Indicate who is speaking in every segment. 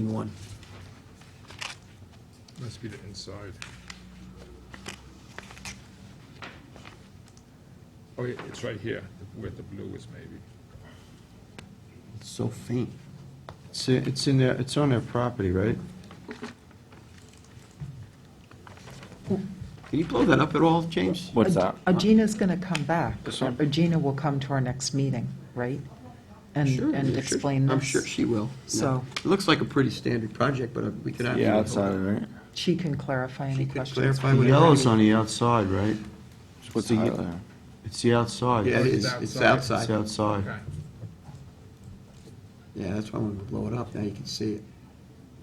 Speaker 1: one?
Speaker 2: Must be the inside. Oh, yeah, it's right here, where the blue is maybe.
Speaker 1: It's so faint. It's, it's in their, it's on their property, right? Can you blow that up at all, James?
Speaker 3: What's that?
Speaker 4: Agina's going to come back.
Speaker 1: This one?
Speaker 4: Agina will come to our next meeting, right? And,
Speaker 1: Sure,
Speaker 4: and
Speaker 1: yeah, sure.
Speaker 4: explain
Speaker 1: I'm
Speaker 4: this.
Speaker 1: sure she will.
Speaker 4: So-
Speaker 1: It looks like a pretty standard project, but uh, we could actually.
Speaker 3: Yeah, outside, right?
Speaker 4: She can clarify any
Speaker 1: She could
Speaker 4: questions.
Speaker 1: clarify
Speaker 4: we
Speaker 1: whatever.
Speaker 4: have.
Speaker 5: Yellow's on the outside, right?
Speaker 3: What's the
Speaker 5: Outside.
Speaker 3: yellow?
Speaker 5: It's the outside.
Speaker 1: Yeah, it is.
Speaker 2: it's
Speaker 1: It's
Speaker 2: outside.
Speaker 1: outside.
Speaker 5: It's outside.
Speaker 2: Okay.
Speaker 1: Yeah, that's why I'm gonna blow it up. Now you can see it.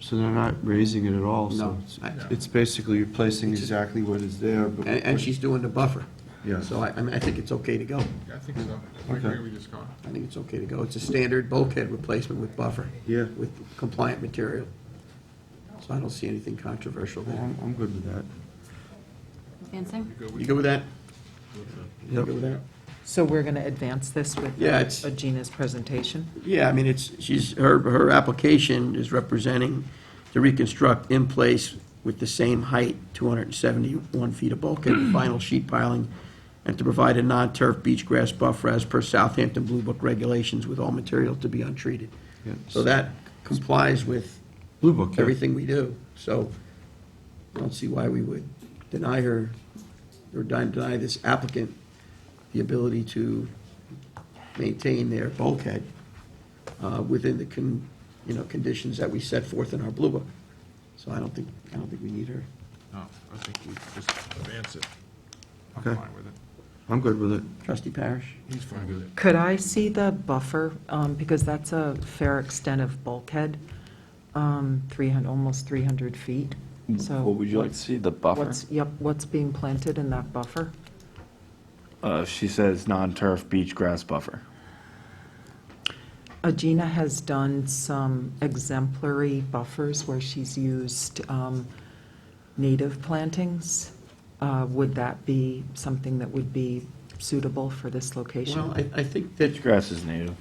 Speaker 5: So they're not raising it at all,
Speaker 1: No.
Speaker 5: so it's-
Speaker 1: I-
Speaker 5: it's basically replacing exactly what is there, but.
Speaker 1: And, and she's doing the buffer.
Speaker 5: Yeah.
Speaker 1: So I, I mean, I think it's okay to go.
Speaker 2: Yeah, I think so. I agree with this Scott.
Speaker 1: I think it's okay to go. It's a standard bulkhead replacement with buffer.
Speaker 5: Yeah.
Speaker 1: With compliant material. So I don't see anything controversial there.
Speaker 5: I'm, I'm good with that.
Speaker 6: Dancing?
Speaker 1: You good with that? You
Speaker 5: Yep.
Speaker 1: good with that?
Speaker 4: So we're going to advance this with
Speaker 1: Yeah, it's-
Speaker 4: Agina's presentation?
Speaker 1: Yeah, I mean, it's, she's, her, her application is representing to reconstruct in place with the same height, 271 feet of bulkhead, and vinyl sheet piling, and to provide a non-turf beach grass buffer as per Southampton Blue Book regulations with all material to be untreated.
Speaker 5: Yeah.
Speaker 1: So that complies with
Speaker 5: Blue Book, yeah.
Speaker 1: everything we do, so I don't see why we would deny her, or den- deny this applicant the ability to maintain their bulkhead uh, within the, con- you know, conditions that we set forth in our Blue Book. So I don't think, I don't think we need her.
Speaker 2: No, I think we just advance it. I'm
Speaker 5: Okay.
Speaker 2: fine with it.
Speaker 5: I'm good with it.
Speaker 1: Trustee Parish?
Speaker 2: He's fine with it.
Speaker 4: Could I see the buffer, um, because that's a fair extent of bulkhead, um, 300, almost 300 feet, so.
Speaker 3: Mm, What would you like to see, the buffer?
Speaker 4: What's, yep, what's being planted in that buffer?
Speaker 3: Uh, she says non-turf beach grass buffer.
Speaker 4: Agena has done some exemplary buffers where she's used um, native plantings. Uh, Would that be something that would be suitable for this
Speaker 1: Well,
Speaker 4: location?
Speaker 1: I, I think that,
Speaker 3: Beach grass is native,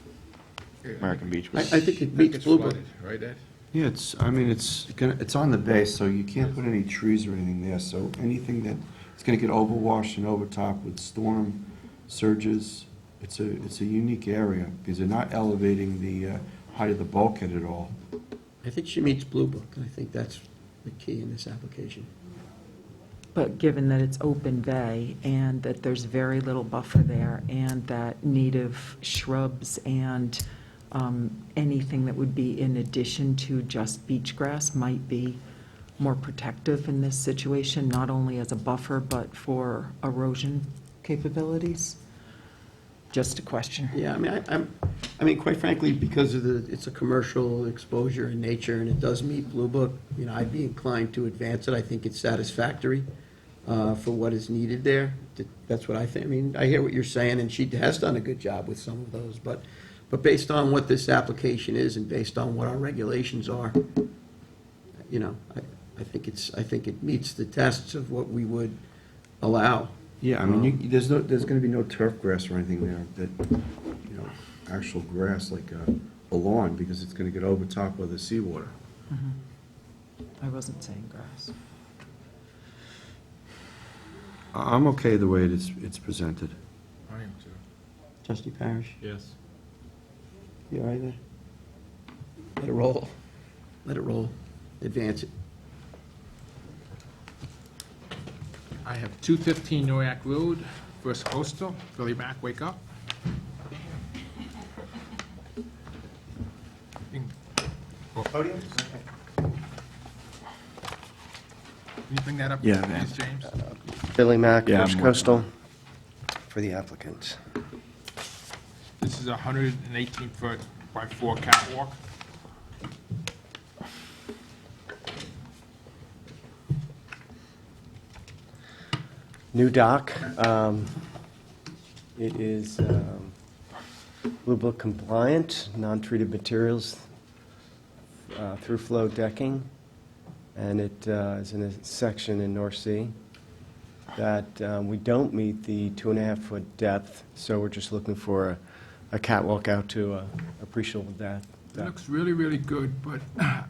Speaker 3: American beach
Speaker 1: I,
Speaker 3: grass.
Speaker 1: I think it
Speaker 2: That
Speaker 1: meets
Speaker 2: gets
Speaker 1: Blue Book.
Speaker 2: flooded, right, Ed?
Speaker 5: Yeah, it's, I mean, it's gonna, it's on the base, so you can't put any trees or anything there, so anything that, it's gonna get overwashed and overtopped with storm surges. It's a, it's a unique area, because they're not elevating the uh, height of the bulkhead at all.
Speaker 1: I think she meets Blue Book, and I think that's the key in this application.
Speaker 4: But given that it's open bay and that there's very little buffer there and that native shrubs and um, anything that would be in addition to just beach grass might be more protective in this situation, not only as a buffer, but for erosion capabilities? Just a question.
Speaker 1: Yeah, I mean, I- I'm, I mean, quite frankly, because of the, it's a commercial exposure in nature, and it does meet Blue Book, you know, I'd be inclined to advance it. I think it's satisfactory uh, for what is needed there. Th- That's what I think. I mean, I hear what you're saying, and she has done a good job with some of those, but, but based on what this application is and based on what our regulations are, you know, I, I think it's, I think it meets the tests of what we would allow. Um,
Speaker 5: Yeah, I mean, you, there's no, there's gonna be no turf grass or anything there that, you know, actual grass like a, a lawn, because it's gonna get over top of the seawater.
Speaker 4: I wasn't saying grass.
Speaker 5: I- I'm okay the way it is, it's presented.
Speaker 2: I am too.
Speaker 1: Trustee Parrish?
Speaker 2: Yes.
Speaker 1: You all right there? Let it roll. Let it roll. Advance it.
Speaker 2: I have 215 Noack Road, First Coastal. Billy Mack, wake up. You can- Can you bring that up,
Speaker 3: Yeah, man.
Speaker 2: please, James?
Speaker 7: Billy Mack,
Speaker 3: Yeah,
Speaker 7: First
Speaker 3: I'm working
Speaker 7: Coastal, for the applicant.
Speaker 2: This is a 118-foot by 4 catwalk.
Speaker 7: New dock. um, It is um, Blue Book compliant, non-treated materials, uh, through-flow decking, and it uh, is in a section in North Sea that um, we don't meet the two-and-a-half-foot depth, so we're just looking for a- a catwalk out to a appreciable depth.
Speaker 2: It looks really, really good, but